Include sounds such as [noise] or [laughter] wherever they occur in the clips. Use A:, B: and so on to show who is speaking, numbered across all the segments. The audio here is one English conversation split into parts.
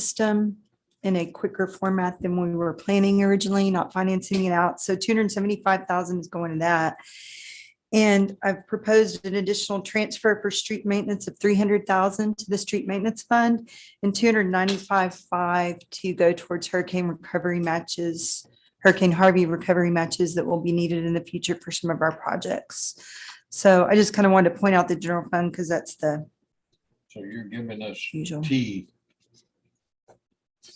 A: system in a quicker format than we were planning originally, not financing it out. So two hundred and seventy-five thousand is going to that. And I've proposed an additional transfer for street maintenance of three hundred thousand to the street maintenance fund and two hundred and ninety-five five to go towards hurricane recovery matches, Hurricane Harvey recovery matches that will be needed in the future for some of our projects. So I just kind of wanted to point out the general fund because that's the
B: So you're giving us
A: usual.
B: T.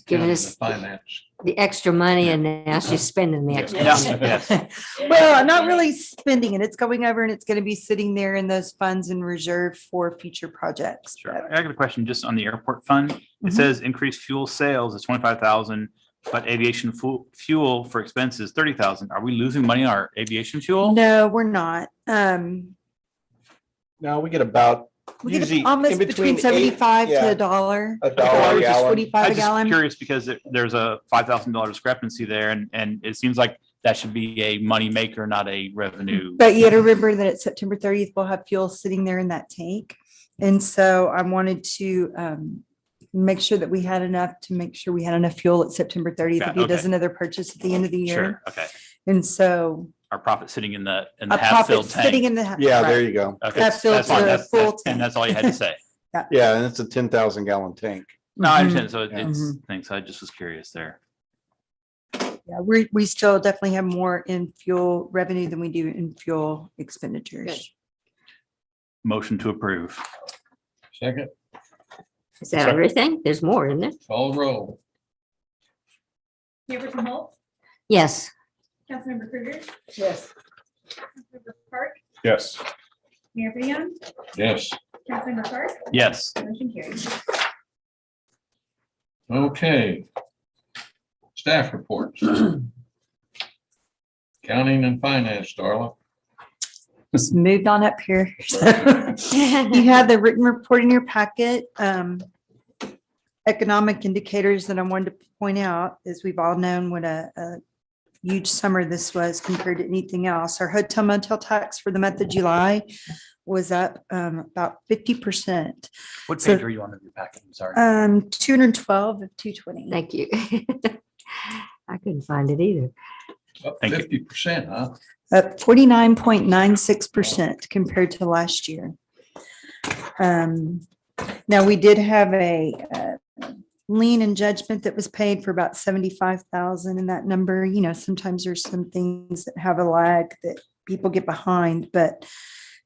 C: Giving
B: down to
C: us-
B: the Finance.
C: the extra money and now she's spending the extra.
D: [laughs] Yeah.
C: money.
D: Yes.
A: Well, I'm not really spending it. It's going over and it's going to be sitting there in those funds in reserve for future projects.
D: Sure. I got a question just on the airport fund.
A: Mhm.
D: It says increased fuel sales is twenty-five thousand, but aviation fu- fuel for expenses thirty thousand. Are we losing money on our aviation
A: But
D: fuel?
A: No, we're not. Um,
E: No, we get about
A: we
E: Usually
A: get almost
E: in
A: between
E: between eight-
A: seventy-five to
E: yeah.
A: a dollar.
E: a
D: I
E: dollar a
D: was just
E: gallon.
D: I'm
A: Forty-five a
D: just
A: gallon.
D: Curious because there- there's a five thousand dollar discrepancy there and, and it seems like that should be a money maker, not a revenue.
A: But you got to remember that at September thirtieth, we'll have fuel sitting there in that tank. And so I wanted to um make sure that we had enough to make sure we had enough fuel at September thirtieth. If
D: Got-
A: he does
D: okay.
A: another purchase at the end of the
D: Sure,
A: year.
D: okay.
A: And so
D: Our profit sitting in the, in the
A: a profit
D: half-filled
A: sitting
D: tank.
A: in the.
E: Yeah, ah, there
A: right.
E: you go.
D: Okay,
A: half filled
D: that's fine.
A: to
D: That's-
A: full
D: that's-
A: tank.
D: And that's all you had to say.
E: Yeah, and it's a ten thousand gallon tank.
D: No,
A: Mhm.
D: I understand. So
E: Yeah.
D: it's, thanks. I just was curious there.
A: Yeah, we, we still definitely have more in fuel revenue than we do in fuel expenditures.
D: Motion to approve.
B: Second,
C: Is that everything? There's more, isn't it?
B: call roll.
F: Huberton Holt,
C: Yes.
F: Councilmember Krueger,
G: yes,
F: Councilmember Park,
H: Yes.
F: Mayor Breon,
B: Yes.
F: Councilmember Park,
D: Yes.
F: motion carries.
B: Okay. Staff reports. Counting and finance, Darla.
A: Just moved on up here. [laughs]
C: [laughs]
A: You had the written report in your packet. Um, economic indicators that I wanted to point out is we've all known what a, a huge summer this was compared to anything else. Our hotel motel tax for the month of July was up, um, about fifty percent.
D: What
A: So-
D: page are you on of your packet? I'm sorry.
A: Um, two hundred and twelve of two twenty.
C: Thank you. [laughs] I couldn't find it either.
B: Up
D: Thank you.
B: fifty percent, huh?
A: up forty-nine point nine six percent compared to last year. Um, now, we did have a uh, lien and judgment that was paid for about seventy-five thousand in that number. You know, sometimes there's some things that have a lag that people get behind, but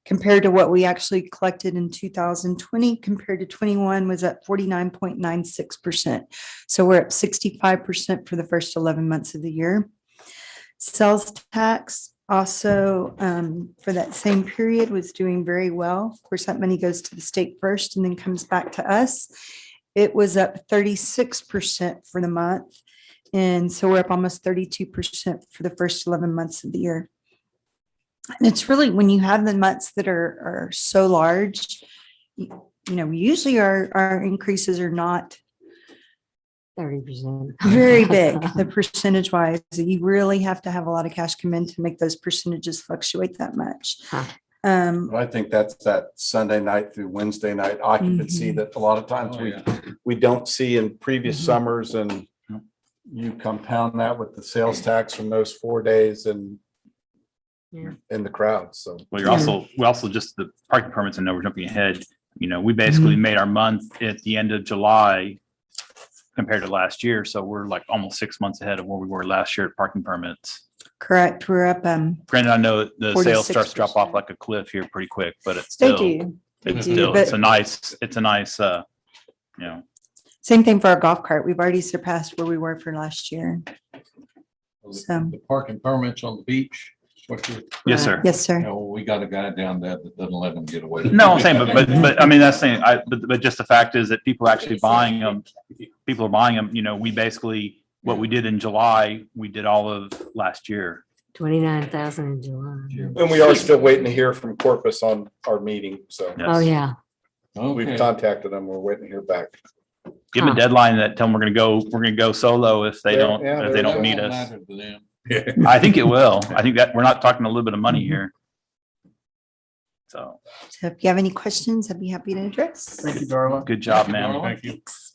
A: compared to what we actually collected in two thousand twenty, compared to twenty-one was at forty-nine point nine six percent. So we're up sixty-five percent for the first eleven months of the year. Sales tax also um, for that same period was doing very well. Of course, that money goes to the state first and then comes back to us. It was up thirty-six percent for the month. And so we're up almost thirty-two percent for the first eleven months of the year. And it's really when you have the months that are are so large, you you know, usually our our increases are not
C: Thirty percent. [laughs]
A: very big, the percentage wise. You really have to have a lot of cash come in to make those percentages fluctuate that much.
C: Huh.
A: Um,
E: I think that's that Sunday night through Wednesday night occupancy
A: Mhm.
E: that a lot of times
B: Oh,
E: we,
B: yeah.
E: we don't see in previous
A: Mhm.
E: summers and you compound that with the sales tax from those four days and
C: Yeah.
E: in the crowd, so.
D: Well, you're also, we also just the parking permits, I know we're jumping ahead. You know, we basically
A: Mhm.
D: made our month at the end of July compared to last year. So we're like almost six months ahead of where we were last year at parking permits.
A: correct, we're up, um,
D: Granted, I know the sales starts to drop off
A: 46%.
D: like a cliff here pretty quick, but it's
A: they
D: still,
A: do. They
D: it's
A: do,
D: still, it's
A: but-
D: a nice, it's a nice, uh, you know,
A: Same thing for our golf cart. We've already surpassed where we were for last year. So-
B: The parking permits on the beach, it's what you're,
D: yes,
C: Right.
D: sir.
A: Yes,
B: you
A: sir.
B: know, we got a guy down there that doesn't let them get away.
D: No, I'm saying, but, but, but I mean, that's saying, I, but, but just the fact is that people actually buying them, people are buying them, you know, we basically, what we did in July, we did all of last year.
C: Twenty-nine thousand in July.
B: [laughs] Yeah.
E: And we are still waiting to hear from Corpus on our meeting, so
C: Oh, yeah.
D: Yes.
E: we've
B: Okay,
E: contacted them. We're waiting to hear back.
D: Give them a
C: Huh.
D: deadline that tell them we're gonna go, we're gonna go solo if they
E: Yeah,
D: don't,
E: yeah,
D: if
E: there
D: they don't
E: you
D: need
B: that won't
D: us.
B: matter to them.
D: I think it will. I think that, we're not talking a little bit of money here. So,
A: So if you have any questions, I'd be happy to address.
D: good job, ma'am.
B: Darla?
A: Thanks.